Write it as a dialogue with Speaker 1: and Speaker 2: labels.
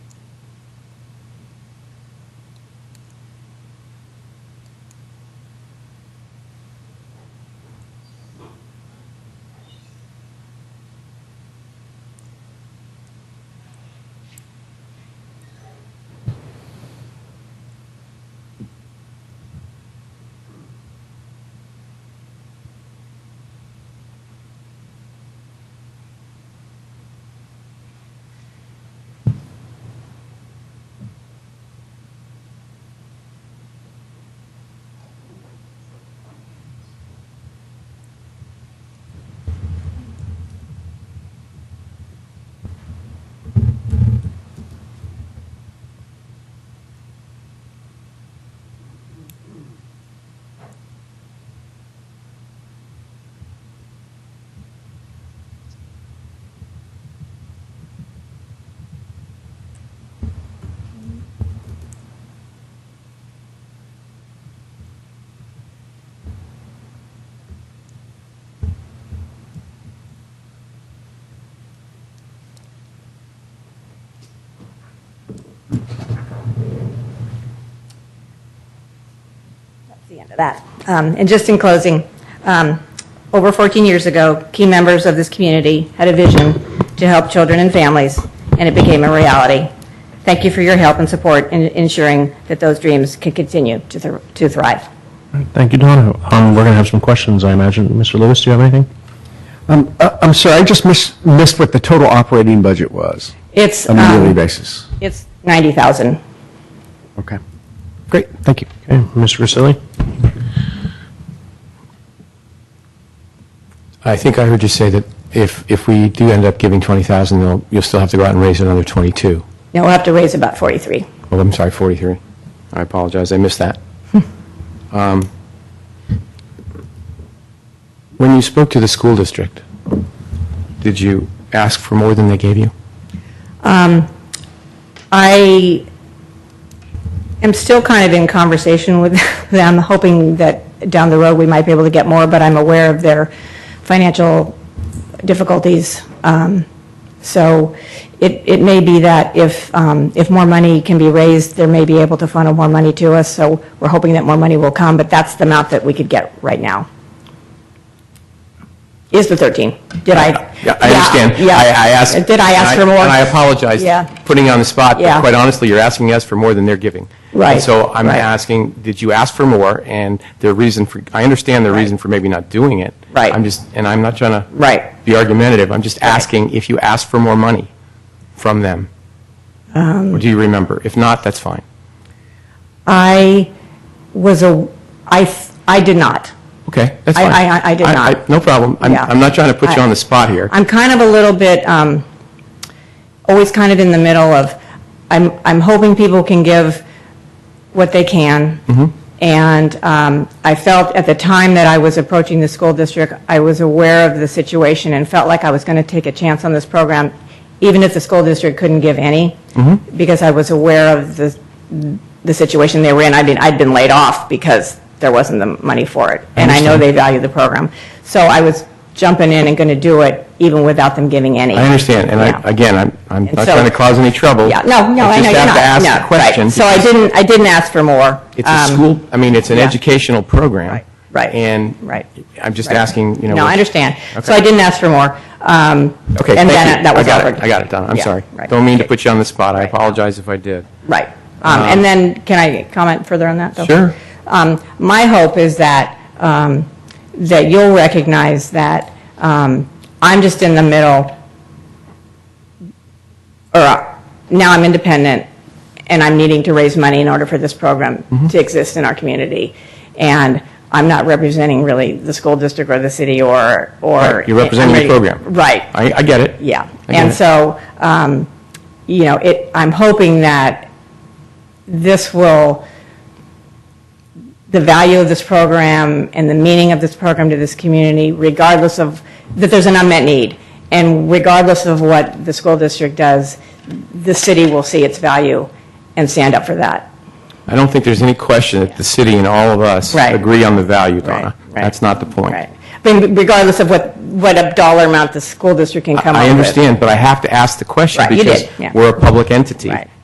Speaker 1: end of that. Um, And just in closing, um, over 14 years ago, key members of this community had a vision to help children and families, and it became a reality. Thank you for your help and support in ensuring that those dreams can continue to thr- to thrive.
Speaker 2: Thank you, Donna. Um, We're going to have some questions, I imagine. Mr. Lewis, do you have anything?
Speaker 3: Um, uh, I'm sorry, I just miss- missed what the total operating budget was
Speaker 1: It's,
Speaker 3: on a yearly
Speaker 1: um,
Speaker 3: basis.
Speaker 1: it's 90,000.
Speaker 3: Okay. Great, thank you.
Speaker 2: Okay, Mr. Grisilli?
Speaker 4: I think I heard you say that if, if we do end up giving 20,000, you'll, you'll still have to go out and raise another 22.
Speaker 1: Now, we'll have to raise about 43.
Speaker 4: Well, I'm sorry, 43. I apologize, I missed that. Um, When you spoke to the school district, did you ask for more than they gave you?
Speaker 1: I am still kind of in conversation with them, hoping that down the road we might be able to get more, but I'm aware of their financial difficulties. Um, So it, it may be that if, um, if more money can be raised, they may be able to funnel more money to us, so we're hoping that more money will come, but that's the amount that we could get right now. Is the 13. Did I?
Speaker 4: Yeah, I understand.
Speaker 1: Yeah.
Speaker 4: I I asked.
Speaker 1: Did I ask
Speaker 4: and
Speaker 1: for more?
Speaker 4: And I apologize,
Speaker 1: Yeah.
Speaker 4: putting you on the spot,
Speaker 1: Yeah.
Speaker 4: but quite honestly, you're asking us for more than they're giving.
Speaker 1: Right,
Speaker 4: And so I'm
Speaker 1: right.
Speaker 4: asking, did you ask for more? And their reason for, I understand their reason for maybe not doing it.
Speaker 1: Right.
Speaker 4: I'm just, and I'm not trying to.
Speaker 1: Right.
Speaker 4: Be argumentative. I'm just asking if you asked for more money from them.
Speaker 1: Um.
Speaker 4: Or do you remember? If not, that's fine.
Speaker 1: I was a, I, th- I did not.
Speaker 4: Okay, that's
Speaker 1: I-
Speaker 4: fine.
Speaker 1: I- I- I did not.
Speaker 4: No problem. I'm,
Speaker 1: Yeah.
Speaker 4: I'm not trying to put you
Speaker 1: I-
Speaker 4: on the spot here.
Speaker 1: I'm kind of a little bit, um, always kind of in the middle of, I'm, I'm hoping people can give what they can.
Speaker 4: Mm-hmm.
Speaker 1: And um, I felt at the time that I was approaching the school district, I was aware of the situation and felt like I was going to take a chance on this program, even if the school district couldn't give any,
Speaker 4: Mm-hmm.
Speaker 1: because I was aware of the, the situation they were in. I mean, I'd been laid off because there wasn't the money for it. And I know they value the program. So I was jumping in and going to do it even without them giving any.
Speaker 4: I understand, and
Speaker 1: Yeah.
Speaker 4: I, again, I'm, I'm
Speaker 1: And
Speaker 4: not
Speaker 1: so-
Speaker 4: trying to cause any trouble.
Speaker 1: Yeah, no, no, I know you're not.
Speaker 4: just have to
Speaker 1: No,
Speaker 4: ask
Speaker 1: right.
Speaker 4: the question.
Speaker 1: So I
Speaker 4: because
Speaker 1: didn't, I didn't ask for more.
Speaker 4: It's
Speaker 1: Um,
Speaker 4: a school, I mean, it's an
Speaker 1: yeah.
Speaker 4: educational program.
Speaker 1: Right, right,
Speaker 4: And
Speaker 1: right,
Speaker 4: I'm just
Speaker 1: right.
Speaker 4: asking, you know.
Speaker 1: No, I
Speaker 4: what-
Speaker 1: understand. So
Speaker 4: Okay.
Speaker 1: I didn't ask for more. Um,
Speaker 4: Okay,
Speaker 1: And
Speaker 4: thank
Speaker 1: then
Speaker 4: you.
Speaker 1: that was
Speaker 4: I got it,
Speaker 1: offered.
Speaker 4: I got it, Donna, I'm
Speaker 1: Yeah,
Speaker 4: sorry.
Speaker 1: right.
Speaker 4: Don't mean to put you on the spot, I apologize if I did.
Speaker 1: Right. Um, And then, can I comment further on that? though?
Speaker 4: Sure.
Speaker 1: Um, My hope is that, um, that you'll recognize that um, I'm just in the middle, or uh, now I'm independent, and I'm needing to raise money in order for this program
Speaker 4: Mm-hmm.
Speaker 1: to exist in our community. And I'm not representing really the school district or the city or, or.
Speaker 4: Right, you're representing the
Speaker 1: I'm ready-
Speaker 4: program.
Speaker 1: Right.
Speaker 4: I, I get it.
Speaker 1: Yeah,
Speaker 4: I get
Speaker 1: and
Speaker 4: it.
Speaker 1: so, um, you know, it, I'm hoping that this will, the value of this program and the meaning of this program to this community, regardless of, that there's an unmet need, and regardless of what the school district does, the city will see its value and stand up for that.
Speaker 4: I don't think there's any question that the city and all of us
Speaker 1: Right.
Speaker 4: agree on the value, Donna.
Speaker 1: Right, right.
Speaker 4: That's not the point.
Speaker 1: Right. I mean, regardless of what, what a dollar amount the school district can come up
Speaker 4: I
Speaker 1: with.
Speaker 4: understand, but I have to ask the question
Speaker 1: Right, you
Speaker 4: because
Speaker 1: did, yeah.
Speaker 4: we're a public entity.
Speaker 1: Right.